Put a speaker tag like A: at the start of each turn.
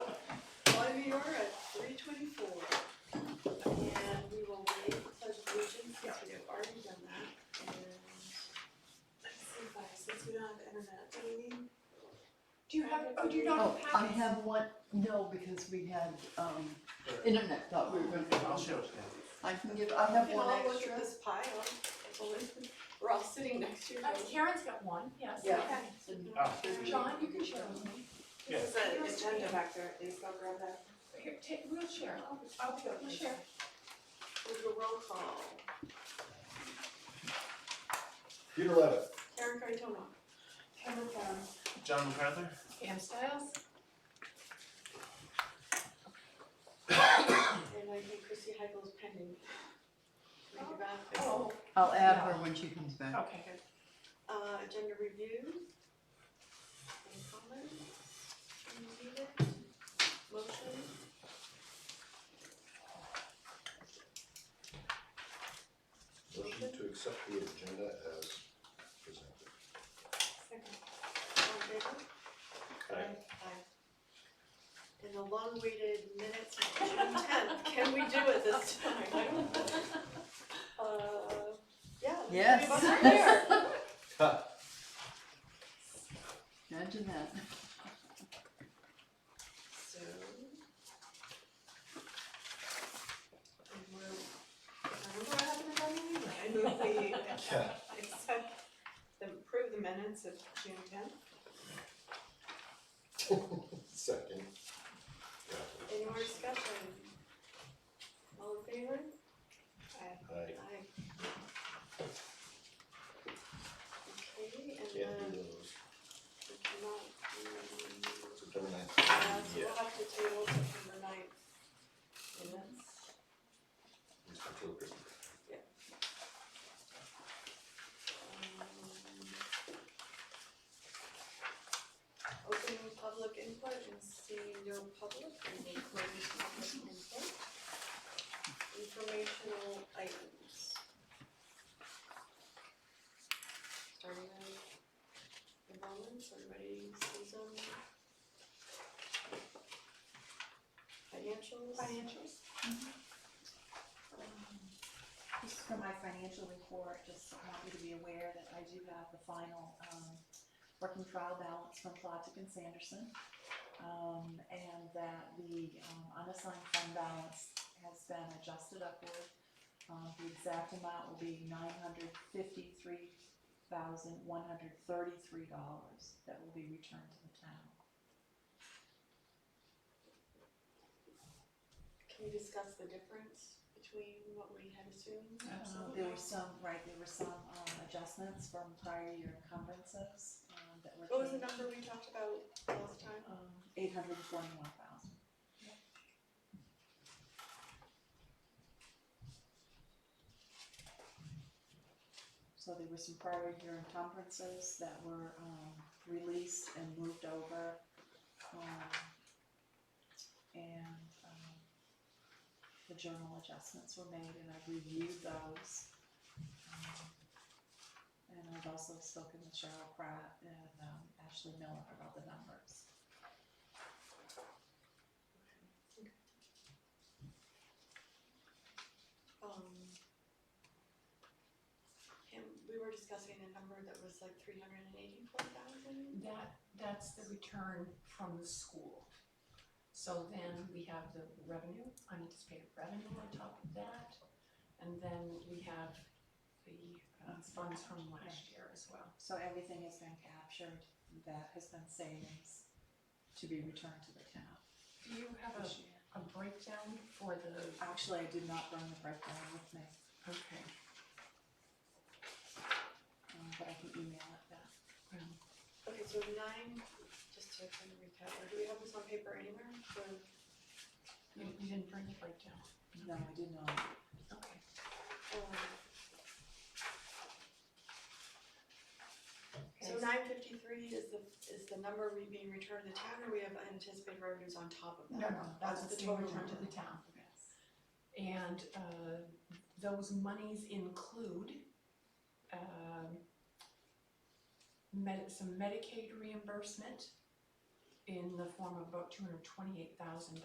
A: we are at three twenty-four. And we will wait pledge allegiance since we've already done that. And let's see if I, since we don't have internet, do we need? Do you have, oh, do you not
B: Oh, I
A: have? it?
B: have one, no, because we had, um, internet, thought we were gonna,
C: I'll show it to
B: I can give, I
A: We
B: have
A: can
B: one
A: all look
B: extra.
A: at this pile. I believe We're all sitting next to each
D: Uh,
A: other.
D: Karen's got one, yes,
B: Yeah.
D: okay.
B: And-
C: Oh.
D: John, you can share with me.
A: This is an agenda back there, please go grab that.
D: Here, take, we'll share, I'll, I'll go, we'll share.
A: We'll do a roll call.
E: Peter Levitt.
A: Karen Cardona.
D: Karen, um,
C: you. John MacArthur?
D: Pam Styles,
A: And I think Chrissy Heigl's pending. Make it back.
D: oh,
B: I'll add her when she comes back.
D: okay, good.
A: Uh, agenda review. Any comments? Any needed? Motion?
E: Motion to accept the agenda as presented.
A: Second. All in favor?
E: Aye.
A: Aye. And the long-awaited minutes of June tenth, can we do it this time? I don't know. Uh, yeah. the three
B: Yes.
A: of us are here.
B: Imagine that.
A: So. And we're, remember what happened at our meeting? I move we
E: Yeah.
A: accept, the- approve the minutes of June tenth.
E: Second. Yeah.
A: Any more discussion? All in favor? Aye.
E: Aye.
A: Aye. Okay, and
E: Can't do
A: then
E: those.
A: we cannot, mm,
E: September ninth.
A: uh, so
E: Yeah.
A: we'll have to table September ninth minutes.
E: Mr. Tilker.
A: Um, Open public input and see no public, and we close public input. Informational items. Starting with enrollments, everybody sees them. Financials.
F: Financials. Um, This is for my financial report, just want you to be aware that I do have the final, um, working trial balance from Platick and Sanderson. Um, and that the, um, unassigned fund balance has been adjusted upward. Uh, the exact amount will be nine hundred fifty-three thousand, one hundred thirty-three dollars that will be returned to the town.
A: Can we discuss the difference between what we had assumed?
F: Uh, There were some, right, there were some, um, adjustments from prior year encumbrances, um, that were.
A: What was the number we talked about last time?
F: Um, eight hundred and twenty-one thousand. So there were some prior year encumbrances that were, um, released and moved over, um, and, um, the journal adjustments were made and I've reviewed those. Um, And I've also spoken with Cheryl Pratt and, um, Ashley Miller about the numbers.
A: Um. And we were discussing a number that was like three hundred and eighty-four thousand?
D: That, that's the return from the school. So then we have the revenue, unanticipated revenue on top of that. And then we have the uh, funds from last year as well.
F: So everything has been captured, that has been savings to be returned to the town
D: Do you have
F: this
D: a,
F: year.
D: a breakdown for the,
F: Actually, I did not bring the breakdown with me,
D: okay,
F: um, but I can email it back.
D: well,
A: Okay, so nine, just to kind of recap, or do we have this on paper anywhere, or?
D: you, you didn't bring the breakdown,
F: No, I did not.
D: okay.
A: Um, So
D: Okay.
A: nine fifty-three is the, is the number we being returned to the town, or we have unanticipated revenues on top of
D: No,
A: that?
D: no, that's
A: That's
D: the
A: the
D: total
A: total
D: return to the town. And, uh, those monies include, um, med- some Medicaid reimbursement in the form of about two hundred twenty-eight thousand